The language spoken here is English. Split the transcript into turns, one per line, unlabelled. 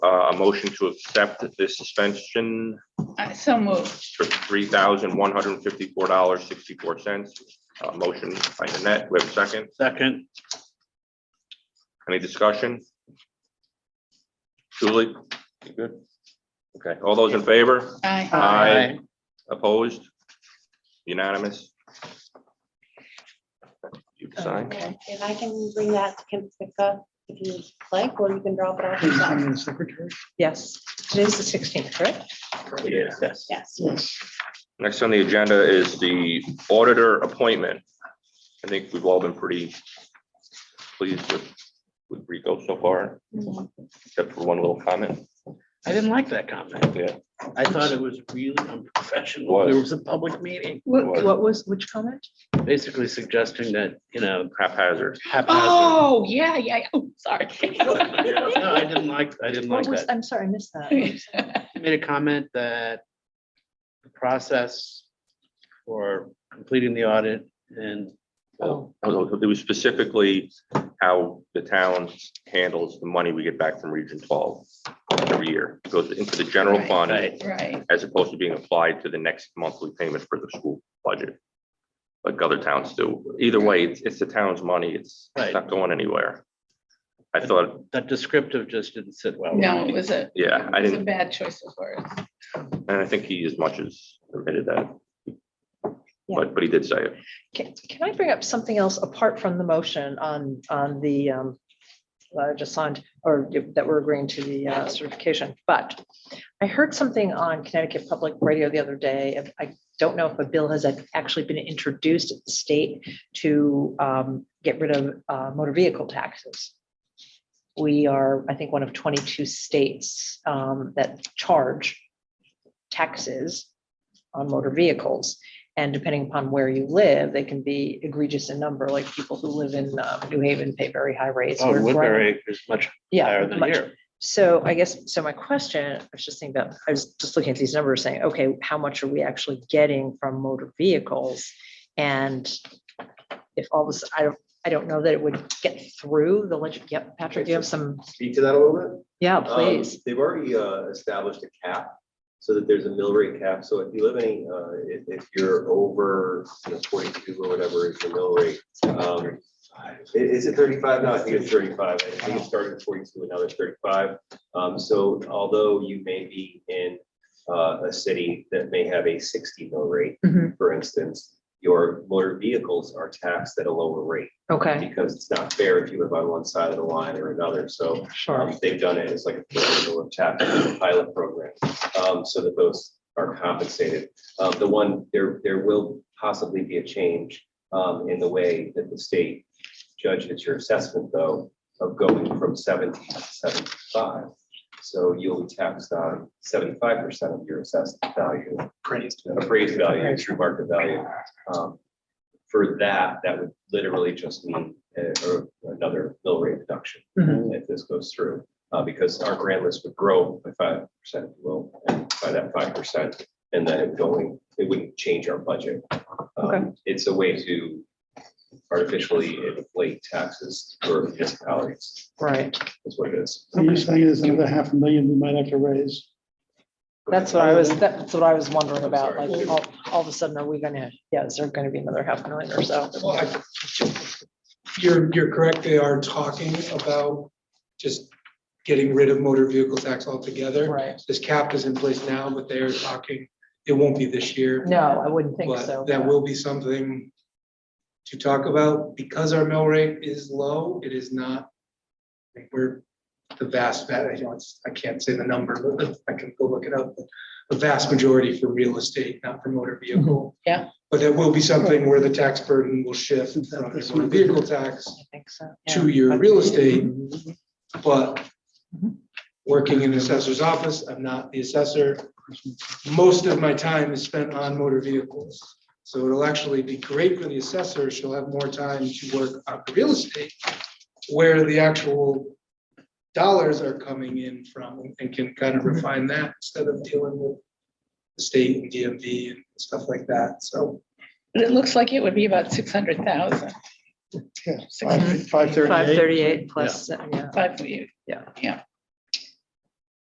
uh, a motion to accept this suspension
I Uh, so moved.
for three thousand one hundred and fifty-four dollars, sixty-four cents. Uh, motion by Nanette, we have a second.
Second,
Any discussion? Julie? You good? Okay, all those in favor?
Aye.
Aye. Opposed? Unanimous? You can sign.
Okay, And I can bring that to Kim Spica if you like, or you can drop it off
Please sign
yourself.
in the secretary.
Yes, today's the sixteenth, correct?
Yeah.
yes.
Yes.
Next on the agenda is the auditor appointment. I think we've all been pretty pleased with, with Rico so far, except for one little comment.
I didn't like that comment.
Yeah.
I thought it was really unprofessional.
Was.
There was a public meeting,
was.
What, what was, which comment?
basically suggesting that, you know,
Haphazard.
haphazard.
Oh, yeah, yeah, yeah. oh, sorry.
No, I didn't like, I didn't
What
like
Oh, was,
that.
I'm sorry, I missed that.
He Made a comment that the process for completing the audit and
Well, It was specifically how the town handles the money we get back from Region twelve every year. It Goes into the general
Right.
fund
Right.
Right,
as opposed to being applied to the next monthly payment for the school budget. Like other towns do. Either way, it's, it's the town's money. It's it's not going anywhere. I thought,
that descriptive just didn't sit well. with
no,
me.
it was a.
Yeah, I
it was a
didn't-
Bad choice of words.
and I think he as much as admitted that.
Yeah.
But, but he did say it.
Can, can I bring up something else apart from the motion on, on the, um, that I just signed, or that we're agreeing to the uh, certification, but I heard something on Connecticut Public Radio the other day, and I don't know if a bill has actually been introduced at the state to, um, get rid of, uh, motor vehicle taxes. We are, I think, one of twenty-two states, um, that charge taxes on motor vehicles. And depending upon where you live, they can be egregious in number, like people who live in uh, New Haven pay very high rates.
Oh,
where-
Woodbury is much
Yeah.
higher than
much-
here.
So I guess, so my question, I was just thinking about, I was just looking at these numbers saying, okay, how much are we actually getting from motor vehicles? And if all this, I don't, I don't know that it would get through the legend. Yep, Patrick, you have some,
speak to that a little bit?
yeah,
Um,
please.
They've already uh, established a cap, so that there's a mill rate cap, so if you live any, uh, if, if you're over you know, forty-two or whatever is the mill rate. um, i- Is it thirty-five? No, I think it's thirty-five, I think it started at forty-two, and now it's thirty-five. Um, So although you may be in uh, a city that may have a sixty mill rate,
Mhm.
for instance, your motor vehicles are taxed at a lower rate,
Okay,
because it's not fair if you live on one side of the line or another, so
sure.
um, They've done it as like a program, a chapter, a pilot program, um, so that those are compensated. Uh, The one, there, there will possibly be a change um, in the way that the state judges your assessment, though, of going from seventy to seventy-five. So you'll be taxed on seventy-five percent of your assessed value. Appraised. Appraised value, true market value. Um, For that, that would literally just mean uh, or another mill rate reduction if this goes through, uh, because our grant list would grow by five percent, well, and by that five percent. And then it going, it wouldn't change our budget. Um,
Okay.
It's a way to artificially inflate taxes for municipalities,
Right.
is what it is.
So you're saying there's another half a million we might have to raise?
That's what I was, that's what I was wondering about,
Sorry.
like, all, all of a sudden, are we gonna, yeah, is there gonna be another half million or so?
Well, I- You're, you're correct, they are talking about just getting rid of motor vehicle tax altogether.
Right.
This cap is in place now, but they are talking, it won't be this year.
No, I wouldn't think so.
But that will be something to talk about, because our mill rate is low, it is not, like, we're the vast, va- you know, it's- I can't say the number, but I can go look it up, but the vast majority for real estate, not for motor
Mm-hmm.
vehicle.
Yeah.
But it will be something where the tax burden will shift
Is that
from
this
the motor
one?
vehicle tax
I think so. yeah.
to your real estate, but
Mhm.
working in an assessor's office, I'm not the assessor. Most of my time is spent on motor vehicles. So it'll actually be great for the assessor. She'll have more time to work on the real estate where the actual dollars are coming in from and can kind of refine that instead of dealing with the state and DMV and stuff like that. So
But it looks like it would be about six hundred thousand,
Yeah, Five thirty-eight.
Five thirty-eight plus, uh, yeah,
five for you.
Yeah.
Yeah.